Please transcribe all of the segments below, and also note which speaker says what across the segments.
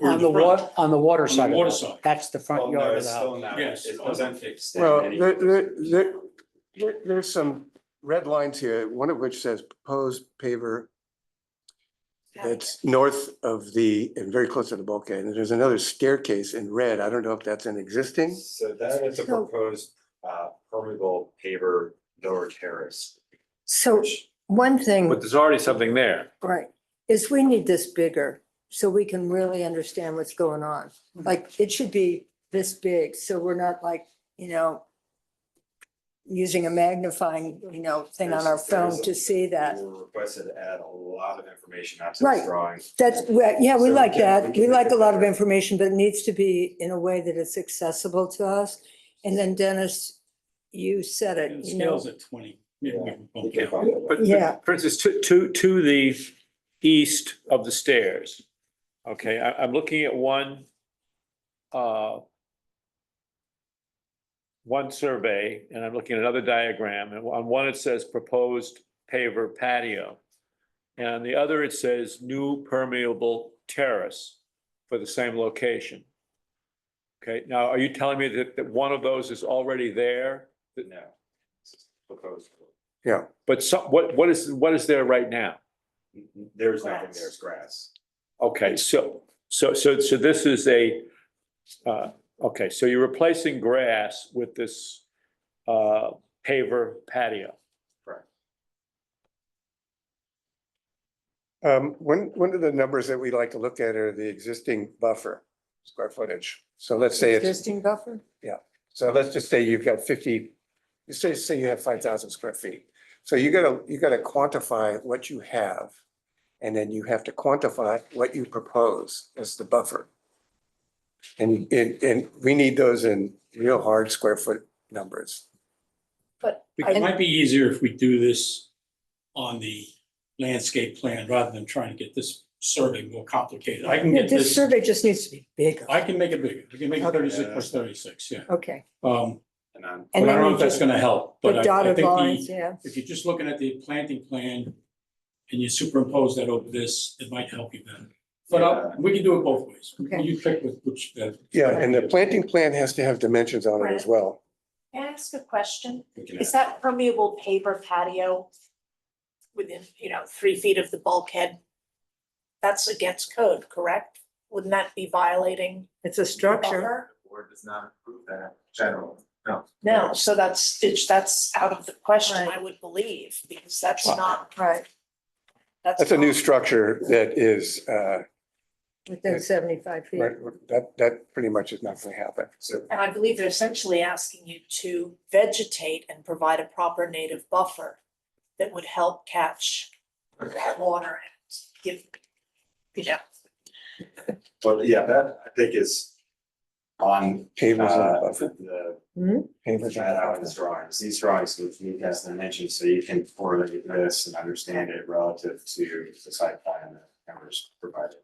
Speaker 1: or
Speaker 2: On the
Speaker 1: front.
Speaker 2: wa, on the water side. of the
Speaker 1: water
Speaker 2: house.
Speaker 1: side.
Speaker 2: That's the
Speaker 3: Oh,
Speaker 2: front yard of the house.
Speaker 1: Yes.
Speaker 3: It wasn't fixed.
Speaker 4: Well, there, there, there, there- there's some red lines here, one of which says proposed paver that's north of the, and very close to the bulkhead, and there's another staircase in red, I don't know if that's an existing.
Speaker 3: So that is a
Speaker 5: So-
Speaker 3: proposed uh permeable paver lower terrace.
Speaker 5: So
Speaker 3: which-
Speaker 5: one thing,
Speaker 6: But there's already something there.
Speaker 5: right, is we need this bigger so we can really understand what's going on.
Speaker 3: Mm-hmm.
Speaker 5: Like, it should be this big, so we're not like, you know, using a magnifying, you know, thing on our
Speaker 3: There's- there's
Speaker 5: phone
Speaker 3: a-
Speaker 5: to see that.
Speaker 3: We were requested to add a lot of information onto the
Speaker 5: Right.
Speaker 3: drawing.
Speaker 5: That's, we- yeah, we
Speaker 3: So,
Speaker 5: like
Speaker 3: yeah,
Speaker 5: that.
Speaker 3: can
Speaker 5: We
Speaker 3: make
Speaker 5: like
Speaker 3: it
Speaker 5: a lot of
Speaker 3: better.
Speaker 5: information, but it needs to be in a way that it's accessible to us. And then Dennis, you said
Speaker 1: And
Speaker 5: it,
Speaker 1: the
Speaker 5: you know,
Speaker 1: scale's at twenty. Yeah,
Speaker 3: Yeah.
Speaker 1: won't
Speaker 3: You can
Speaker 1: count.
Speaker 3: find it.
Speaker 6: But-
Speaker 5: Yeah.
Speaker 6: But for instance, to, to, to the east of the stairs. Okay, I, I'm looking at one, uh, one survey and I'm looking at another diagram and on one it says proposed paver patio. And on the other it says new permeable terrace for the same location. Okay, now are you telling me that, that one of those is already there?
Speaker 3: No. This is Proposed.
Speaker 6: But some, what, what is, what is there right now?
Speaker 3: There's nothing,
Speaker 5: Grass.
Speaker 3: there's grass.
Speaker 6: Okay, so, so, so, so this is a, uh, okay, so you're replacing grass with this, uh, paver patio.
Speaker 4: Um, one, one of the numbers that we like to look at are the existing buffer, square footage. So let's say it's,
Speaker 5: existing buffer?
Speaker 4: so let's just say you've got fifty, let's say, say you have five thousand square feet. So you gotta, you gotta quantify what you have, and then you have to quantify what you propose as the buffer. And, and, and we need those in real hard square foot numbers.
Speaker 5: But
Speaker 1: It might be easier if we do this on the landscape plan rather than trying to get this survey more complicated. I can
Speaker 5: Yeah,
Speaker 1: get
Speaker 5: this
Speaker 1: this,
Speaker 5: survey just needs to be bigger.
Speaker 1: I can make it bigger. I can make it thirty-six plus thirty-six, yeah.
Speaker 5: Okay.
Speaker 1: Um,
Speaker 3: And I'm
Speaker 1: but I don't
Speaker 5: And then
Speaker 1: know
Speaker 5: you
Speaker 1: if that's
Speaker 5: just,
Speaker 1: gonna help,
Speaker 5: the
Speaker 1: but I- I
Speaker 5: dotted
Speaker 1: think
Speaker 5: lines,
Speaker 1: the,
Speaker 5: yeah.
Speaker 1: if you're just looking at the planting plan and you superimpose that over this, it might help you better. But I'll- we can do it both ways.
Speaker 5: Okay.
Speaker 1: You pick with which, uh,
Speaker 4: Yeah, and the planting plan has to have dimensions on it as well.
Speaker 7: Can I ask a question?
Speaker 3: we can
Speaker 7: Is that permeable paper patio within, you know, three feet of the bulkhead? That's against code, correct? Wouldn't that be violating?
Speaker 5: It's a
Speaker 7: the
Speaker 5: structure.
Speaker 7: buffer?
Speaker 3: The Board does not approve that general, no.
Speaker 7: No, so that's, it's- that's out of the question,
Speaker 5: Right.
Speaker 7: I would believe, because that's not,
Speaker 5: Right,
Speaker 7: that's.
Speaker 4: That's a new
Speaker 7: not-
Speaker 4: structure that is, uh,
Speaker 5: within seventy-five feet.
Speaker 4: Right, that, that pretty much is not gonna happen.
Speaker 3: So
Speaker 7: And I believe they're essentially asking you to vegetate and provide a proper native buffer that would help catch that water and give, you know,
Speaker 3: But yeah, that I think is on
Speaker 4: Pavers and
Speaker 3: uh
Speaker 4: buffer,
Speaker 3: the
Speaker 4: pavers
Speaker 3: that out in
Speaker 4: and
Speaker 3: these
Speaker 4: buffer.
Speaker 3: drawings, these drawings with the cast dimension, so you can correlate this and understand it relative to the site plan that members provided.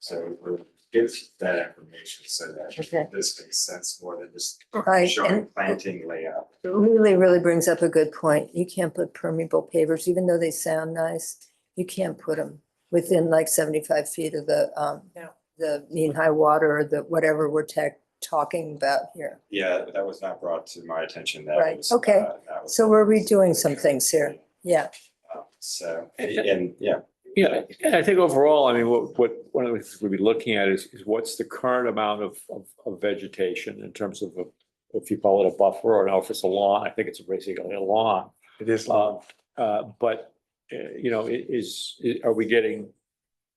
Speaker 3: So we'll give that information so
Speaker 5: Okay.
Speaker 3: that this makes sense more than just
Speaker 5: Right,
Speaker 3: showing
Speaker 5: and
Speaker 3: planting layout.
Speaker 5: it really, really brings up a good point. You can't put permeable pavers, even though they sound nice. You can't put them within like seventy-five feet of the, um,
Speaker 7: No.
Speaker 5: the mean high water, or the whatever we're tech, talking about here.
Speaker 3: Yeah, that was not brought to my attention. That
Speaker 5: Right,
Speaker 3: was,
Speaker 5: okay.
Speaker 3: uh, that was-
Speaker 5: So we're redoing some things here. Yeah,
Speaker 3: Uh, So, and- and yeah,
Speaker 6: Yeah, and I think overall, I mean, what, what, one of the things we'd be looking at is, is what's the current amount of, of, of vegetation in terms of, a- if you call it a buffer or if it's a lawn, I think it's basically a lawn.
Speaker 4: It is long.
Speaker 6: Uh, uh, But, uh, you know, i- is, i- are we getting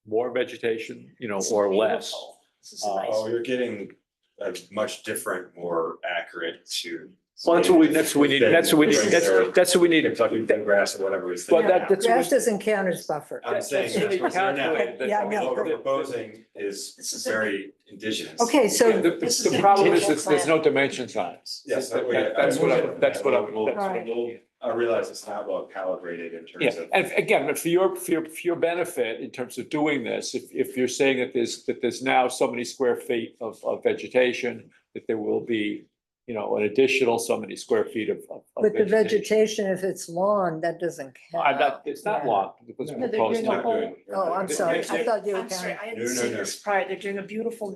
Speaker 6: more vegetation, you know,
Speaker 7: It's
Speaker 6: or less?
Speaker 7: beautiful. This is a
Speaker 6: Uh,
Speaker 7: nice.
Speaker 3: oh, you're getting a much different, more accurate to.
Speaker 6: Well, that's what we, that's what we need, that's what we need, that's, that's what we need.
Speaker 3: Kentucky bluegrass or whatever it was.
Speaker 6: But
Speaker 3: thinking
Speaker 6: that, that's. what we-
Speaker 5: grass doesn't count as buffer.
Speaker 3: I'm saying that's what's there now.
Speaker 5: Yeah, I know.
Speaker 3: What we're proposing
Speaker 7: This
Speaker 3: is
Speaker 7: is a-
Speaker 3: very indigenous.
Speaker 5: Okay,
Speaker 6: Yeah,
Speaker 5: so,
Speaker 6: The,
Speaker 7: This
Speaker 6: the
Speaker 7: is
Speaker 6: problem
Speaker 7: a
Speaker 6: is, that there's no dimensions on it.
Speaker 3: Yes, that we-
Speaker 6: That- That's what I, that's what I'm. that's what I'm-
Speaker 3: We'll- I realize it's not well calibrated in terms
Speaker 6: Yeah,
Speaker 3: of.
Speaker 6: and again, but for your, for your, for your benefit in terms of doing this, if, if you're saying that there's, that there's now so many square feet of, of vegetation, that there will be you know, an additional so many square feet of. of- of
Speaker 5: But the vegetation, if it's lawn, that doesn't count.
Speaker 6: I'm not, it's not
Speaker 5: Yeah.
Speaker 6: long. it's
Speaker 7: No, they're
Speaker 6: proposed
Speaker 7: doing a
Speaker 6: not
Speaker 7: whole-
Speaker 6: doing-
Speaker 5: Oh, I'm sorry. I thought you were
Speaker 7: I'm sorry,
Speaker 5: counting.
Speaker 3: No,
Speaker 7: I hadn't
Speaker 3: no,
Speaker 7: seen
Speaker 3: no.
Speaker 7: this prior. They're doing a beautiful